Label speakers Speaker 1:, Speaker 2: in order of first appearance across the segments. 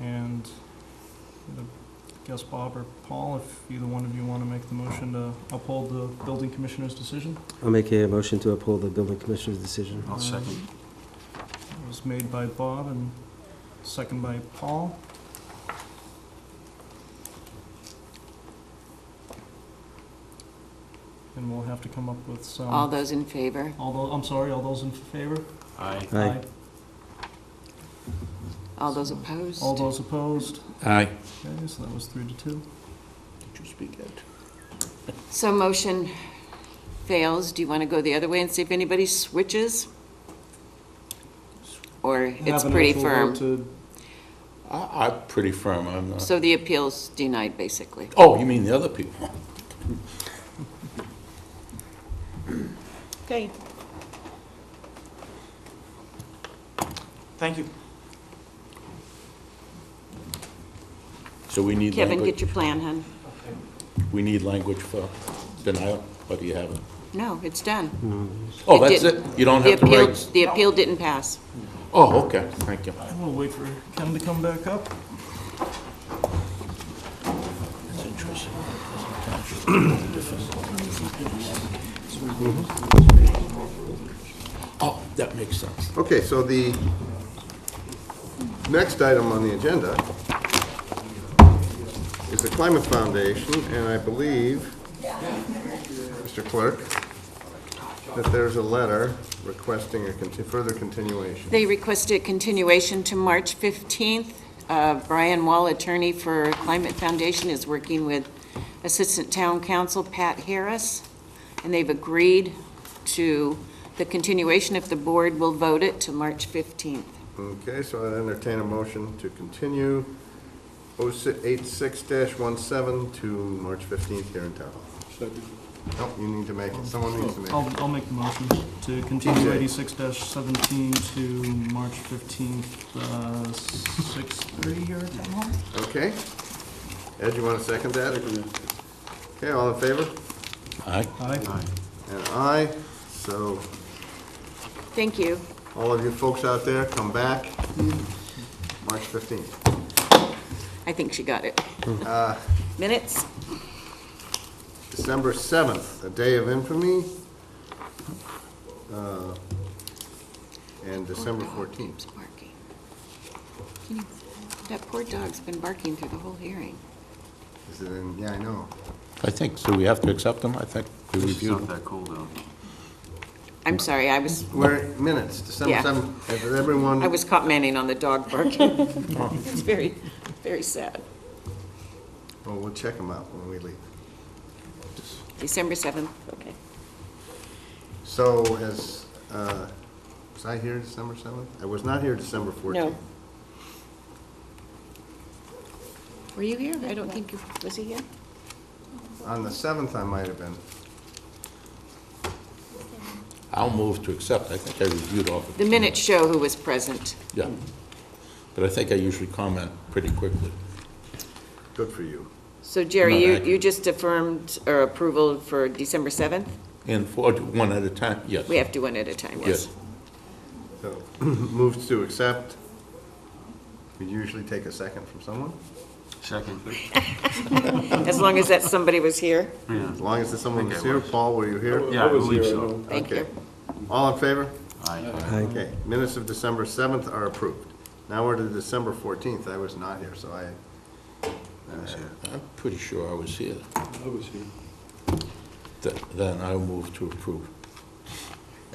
Speaker 1: And I guess Bob or Paul, if either one of you want to make the motion to uphold the building commissioner's decision.
Speaker 2: I'll make a motion to uphold the building commissioner's decision.
Speaker 3: I'll second.
Speaker 1: It was made by Bob and second by Paul. And we'll have to come up with some,
Speaker 4: All those in favor?
Speaker 1: although, I'm sorry, all those in favor?
Speaker 3: Aye.
Speaker 2: Aye.
Speaker 4: All those opposed?
Speaker 1: All those opposed?
Speaker 5: Aye.
Speaker 1: Okay, so that was three to two.
Speaker 3: Did you speak out?
Speaker 4: So motion fails. Do you want to go the other way and see if anybody switches? Or it's
Speaker 1: Have an
Speaker 4: pretty
Speaker 1: actual vote
Speaker 4: firm?
Speaker 1: to-
Speaker 3: I, I'm pretty firm, I'm not.
Speaker 4: So the appeal's denied, basically.
Speaker 3: Oh, you mean the other people?
Speaker 6: Okay. Thank you.
Speaker 3: So we need
Speaker 4: Kevin, get
Speaker 3: language,
Speaker 4: your plan, hon.
Speaker 3: we need language for denial, or do you have it?
Speaker 4: No, it's done.
Speaker 3: Oh,
Speaker 4: It
Speaker 3: that's
Speaker 4: did-
Speaker 3: it? You don't
Speaker 4: The
Speaker 3: have to
Speaker 4: appeal,
Speaker 3: write?
Speaker 4: the appeal didn't pass.
Speaker 3: Oh, okay, thank you.
Speaker 1: We'll wait for Ken to come back up.
Speaker 3: That's interesting. Oh, that makes sense.
Speaker 7: Okay, so the next item on the agenda is the Climate Foundation, and I believe, Mr. Clerk, that there's a letter requesting a conti- further continuation.
Speaker 4: They requested continuation to March 15th. Uh, Brian Wall, attorney for Climate Foundation, is working with Assistant Town Council Pat Harris, and they've agreed to the continuation if the board will vote it to March 15th.
Speaker 7: Okay, so I'd entertain a motion to continue 086-17 to March 15th here in town. Nope, you need to make it, someone needs to make it.
Speaker 1: I'll, I'll make the motion to continue eighty-six seventeen to March fifteenth, uh, six thirty here at Town Hall?
Speaker 7: Okay. Ed, you want to second that? Okay, all in favor?
Speaker 3: Aye.
Speaker 1: Aye.
Speaker 7: And aye. So
Speaker 4: Thank you.
Speaker 7: all of you folks out there, come back March 15th.
Speaker 4: I think she got it. Minutes?
Speaker 7: December 7th, a day of infamy. uh, And December
Speaker 4: Poor dog
Speaker 7: 14th.
Speaker 4: keeps barking. Can you- That poor dog's been barking through the whole hearing.
Speaker 7: Is it in, yeah, I know.
Speaker 3: I think, so we have to accept them, I think, we reviewed them.
Speaker 4: I'm sorry, I was,
Speaker 7: We're minutes, December
Speaker 4: Yeah.
Speaker 7: 7th. Has everyone?
Speaker 4: I was caught manning on the dog barking. It's very, very sad.
Speaker 7: Well, we'll check them out when we leave.
Speaker 4: December 7th, okay.
Speaker 7: So has, uh, was I here December 7th? I was not here December 14th.
Speaker 4: No. Were you here? I don't think you, was he here?
Speaker 7: On the seventh, I might have been.
Speaker 3: I'll move to accept, I think I reviewed all of
Speaker 4: The
Speaker 3: them.
Speaker 4: minutes show who was present.
Speaker 3: Yeah, but I think I usually comment pretty quickly.
Speaker 7: Good for you.
Speaker 4: So Jerry,
Speaker 3: Not
Speaker 4: you,
Speaker 3: accurate.
Speaker 4: you just affirmed or approval for December 7th?
Speaker 3: And for, one at a time, yes.
Speaker 4: We have to do one at a time,
Speaker 3: Yes,
Speaker 4: yes.
Speaker 7: So, moves to accept. We usually take a second from someone,
Speaker 4: As long as that somebody was here,
Speaker 7: as long as there's someone who's here. Paul, were you here?
Speaker 8: Yeah, I believe so.
Speaker 4: thank you.
Speaker 7: Okay. All in favor?
Speaker 2: Aye.
Speaker 7: Okay, minutes of December seventh are approved. Now we're to December fourteenth. I was not here, so I,
Speaker 3: I'm pretty sure I was here. I was here. Then I'll move to approve.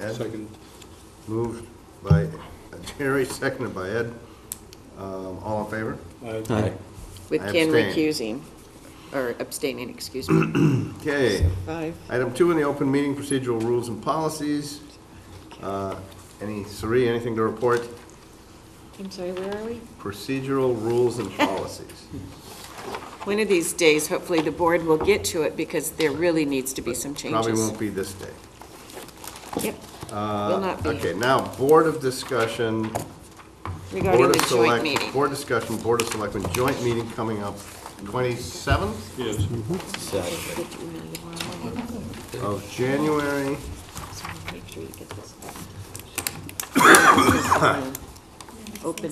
Speaker 7: Ed, moved by Jerry, seconded by Ed. Um, all in favor?
Speaker 3: Aye.
Speaker 4: With
Speaker 7: I
Speaker 4: Ken recusing,
Speaker 7: abstain.
Speaker 4: or abstaining, excuse me.
Speaker 7: Okay.
Speaker 4: Five.
Speaker 7: Item two in the open meeting procedural rules and policies. Uh, Any, Sari, anything to report?
Speaker 4: I'm sorry, where are we?
Speaker 7: Procedural rules and policies.
Speaker 4: One of these days, hopefully the board will get to it because there really needs to be some changes.
Speaker 7: Probably won't be this day. Uh,
Speaker 4: Yep. Will not be.
Speaker 7: Okay, now, Board of Discussion,
Speaker 4: Regarding
Speaker 7: Board of
Speaker 4: the joint
Speaker 7: Select,
Speaker 4: meeting.
Speaker 7: Board Discussion, Board of Selectmen, joint meeting coming up 27th
Speaker 8: Yes.
Speaker 3: Saturday.
Speaker 7: of January.
Speaker 4: Make sure you get this. Open